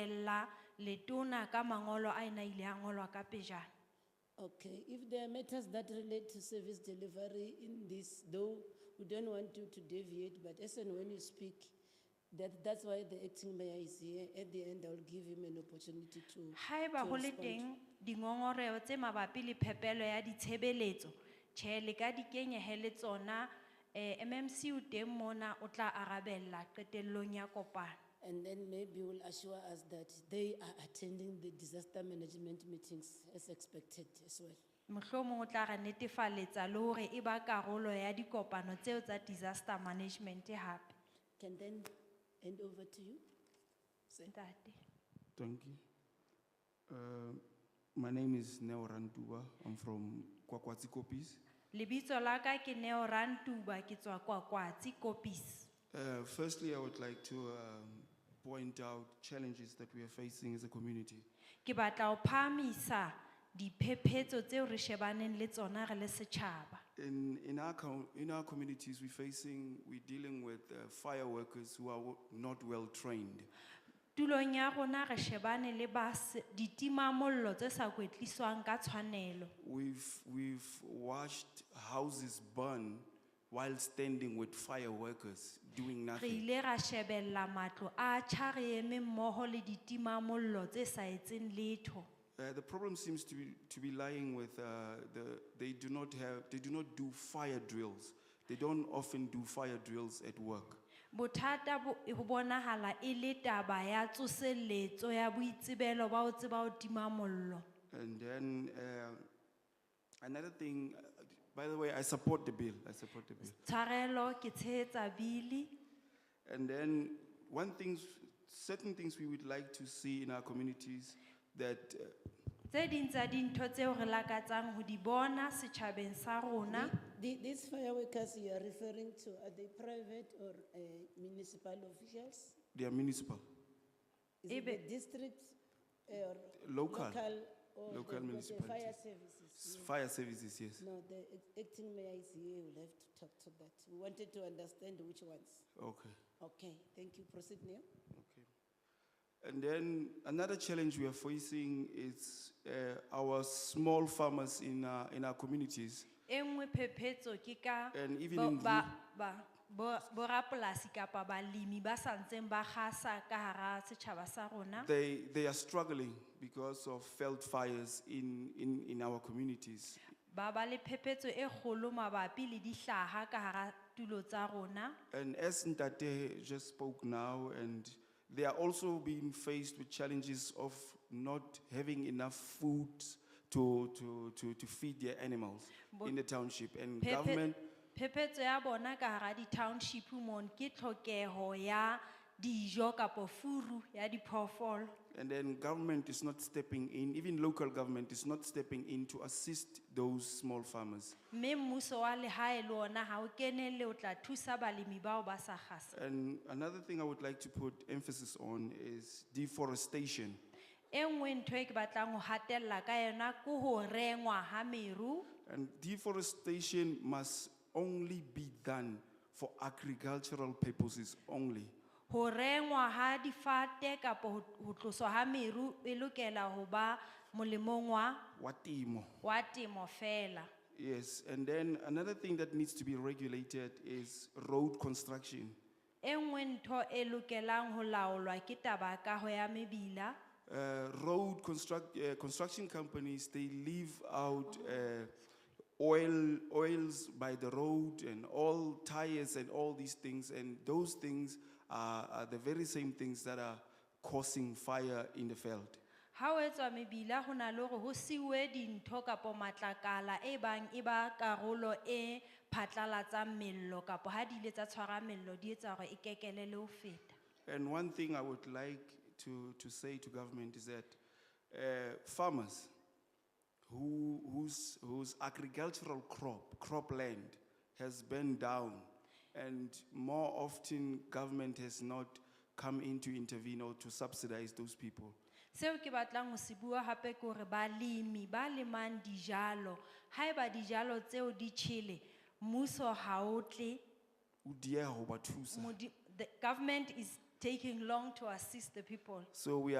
latella letona ka mangolo a ena ile a ngolwa ka pejana Okay, if there are matters that relate to service delivery in this, though we don't want you to deviate, but as and when you speak, that, that's why the acting mayor is here. At the end, I'll give him an opportunity to. haeba to go le respond. teng dingongoreo tse mabapi le phepelo ya ditshebeletso tjhe le ka dikenyege le tsona um mmc o teng mona o tla arabella qetellong ya kopano And then maybe will assure us that they are attending the disaster management meetings as expected as well. mohlomong o tla ra netefaletsa le gore e ba karolo ya dikopano tseo tsa disaster management gape Can then hand over to you. Sir. ntate Thank you. Uh, my name is Neo Rantuba. I'm from Kwakwatsi Kopis. lebitso la ka ke neo rantuba ke tswa kwakwatsi kopis Uh, firstly, I would like to um, point out challenges that we are facing as a community. ke batla o phahamisa diphephetso tseo re shebaneng le tsona re le setšhaba In, in, our, com- in our communities, we're facing, we're dealing with uh, fire workers who are w- not well trained. tulong ya rona re shebane le bas- ditimamollo tse sa kwetliswang ka tshwanelo We've, we've watched houses burn while standing with fire workers doing re nothing. ile ra shebella matlo a tjha re eme mmoho le ditimamollo tse sa etseng letho Uh, the problem seems to be, to be lying with uh, the, they do not have, they do not do fire drills. They don't often do fire drills at work. bothata bo e- ho bonahala e le taba ya tsoseletso ya boitsebelo ba ho tseba ho tima mollo And then uh, another thing, uh, by the way, I support the bill. I support the bill. tshwarelo ke tshehetsa bili And then one things, certain things we would like to see in our communities that uh, tse ding tsa dintho tseo re lakatsang ho di bona setjhabeng sa rona The- These fire workers you are referring to, are they private or uh, municipal officials? they are municipal, Is it the Ebe- district uh, or? Local. or Local they've got the Fire municipalities. services. yes. fire services, yes. No, the act- acting mayor is here, we'll have to talk to that. We wanted to understand which ones. Okay. Okay, thank you, proceed now. And then another challenge we are facing is uh, our small farmers in our, in our communities e nngwe phephetso ke ka and even bo- in ba- ba- bo- borapolasi kapa balemi ba sa ntseng ba gasa ka hara setjhaba sa rona ru- they they are struggling because of failed fires in, in, in our communities. ba ba le phephetso e kgolo mabapi le dihlaha ka hara tulo tsa rona And as Ntate just spoke now, and they are also being faced with challenges of not having enough food to, to, to, to feed their animals Bo- in the township. And Phephe- government phephetso ya bona ka hara di-township mon ke tlhokeho ya dijo kapo furu ya diphoofolo And then government is not stepping in, even local government is not stepping in to assist those small farmers. mme mmuso wa lehae le ona ha o kenelle o tla thusa balemi bao ba sa gasa And another thing I would like to put emphasis on is deforestation. e nngwe ntho e ke batlang ho hatella ka yona ke ho rengwa ha meru And deforestation must only be done for agricultural purposes only. ho rengwa ha difate kapa ho ho tloswa ha meru e lokela ho ba molemong wa Watimo. wa temo fela Yes, and then another thing that needs to be regulated is road construction. e nngwe ntho e lokelang ho laolwa ke taba ya kaho ya mebila uh, road construct, uh, construction companies, they leave out uh, oil, oils by the road and all tires and all these things. And those things are, are the very same things that are causing fire in the field. ha ho etswa mebila ho na le hore ho siuwe dintho kapa matlakala e bang e ba karolo e phatlalatsang mello kapa ha di ile tsa tshwara mello di etsa hore e kekelele ho feta And one thing I would like to, to say to government is that uh, farmers who, whose, whose agricultural crop, cropland, has burned down, and more often government has not come in to intervene or to subsidize those people. seo ke batlang ho se bua hape ke hore balemi ba lemang dijalo haeba dijalo tseo di tjhele mmuso ha o tle O dieha ho ba thusa. modi- the government is taking long to assist the people So we